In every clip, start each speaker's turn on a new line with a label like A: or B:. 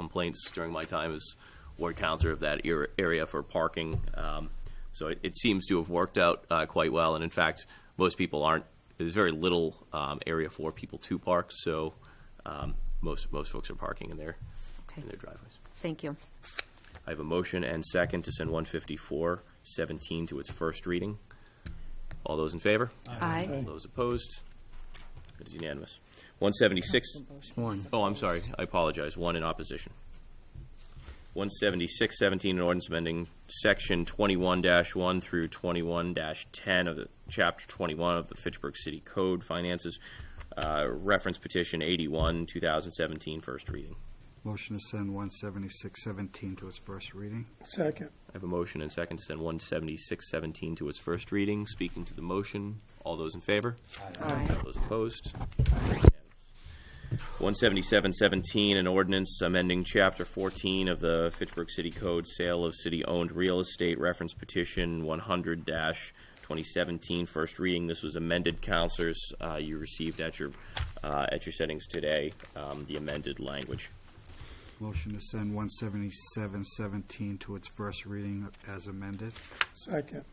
A: complaints during my time as ward counselor of that era- area for parking. Um, So it- it seems to have worked out uh, quite well, and in fact, most people aren't, there's very little um, area for people to park, so um, most, most folks are parking in their,
B: Okay.
A: in their driveways.
B: Thank you.
A: I have a motion and second to send 154-17 to its first reading. All those in favor?
B: Aye.
A: All those opposed? It is unanimous. 176,
C: One.
A: oh, I'm sorry, I apologize, one in opposition. 176-17, an ordinance amending Section 21-1 through 21-10 of the, Chapter 21 of the Fitchburg City Code Finances, uh, reference petition 81, 2017, first reading.
D: Motion to send 17617 to its first reading.
E: Second.
A: I have a motion and second to send 176-17 to its first reading. Speaking to the motion, all those in favor?
B: Aye.
A: All those opposed? 177-17, an ordinance amending Chapter 14 of the Fitchburg City Code, Sale of City-Owned Real Estate, reference petition 100-2017, first reading. This was amended, counselors. Uh, You received at your, uh, at your settings today, um, the amended language.
D: Motion to send 17717 to its first reading as amended.
E: Second.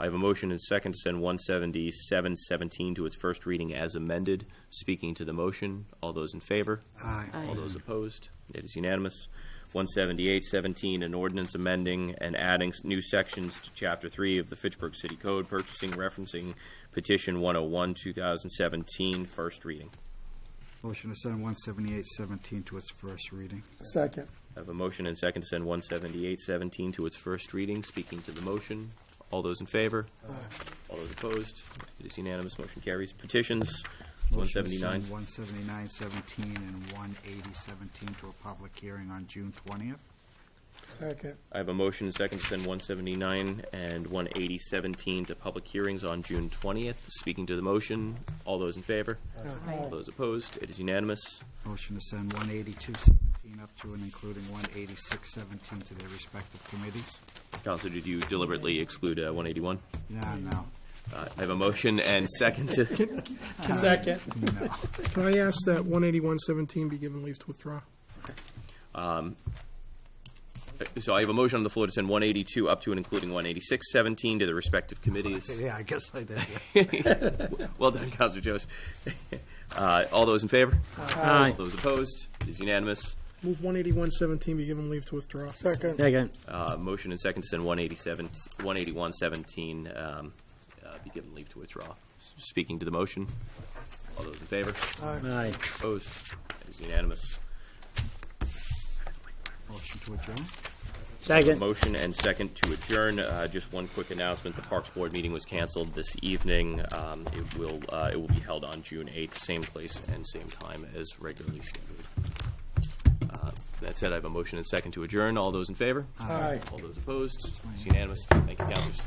A: I have a motion and second to send 177-17 to its first reading as amended. Speaking to the motion, all those in favor?
D: Aye.
A: All those opposed? It is unanimous. 178-17, an ordinance amending and adding s- new sections to Chapter 3 of the Fitchburg City Code, purchasing, referencing Petition 101, 2017, first reading.
D: Motion to send 17817 to its first reading.
E: Second.
A: I have a motion and second to send 178-17 to its first reading. Speaking to the motion, all those in favor? All those opposed? It is unanimous, motion carries. Petitions,
D: Motion to
A: 179.
D: send 17917 and 18017 to a public hearing on June 20th.
E: Second.
A: I have a motion and second to send 179 and 18017 to public hearings on June 20th. Speaking to the motion, all those in favor? All those opposed? It is unanimous.
D: Motion to send 18217 up to and including 18617 to their respective committees.
A: Counselor, did you deliberately exclude uh, 181?
D: No, no,
A: Uh, I have a motion and second to,
E: Second.
D: no.
E: Can I ask that one eighty-one seventeen be given leave to withdraw?
A: so I have a motion on the floor to send 182 up to and including 18617 to the respective committees.
D: Yeah, I guess I did.
A: Well done, Counselor Joseph. Uh, All those in favor? Aye. All those opposed? It is unanimous.
E: Move one eighty-one seventeen be given leave to withdraw. Second.
C: Second.
A: Uh, Motion and second to send 187, 18117, um, uh, be given leave to withdraw. S- Speaking to the motion, all those in favor?
C: Aye.
A: Opposed? It is unanimous.
D: Motion to adjourn.
C: Second.
A: Motion and second to adjourn. Uh, Just one quick announcement, the Parks Board meeting was canceled this evening. Um, It will, uh, it will be held on June 8th, same place and same time as regularly scheduled. Uh, That said, I have a motion and second to adjourn. All those in favor?
E: Aye.
A: All those opposed? It's unanimous. Thank you, councilors.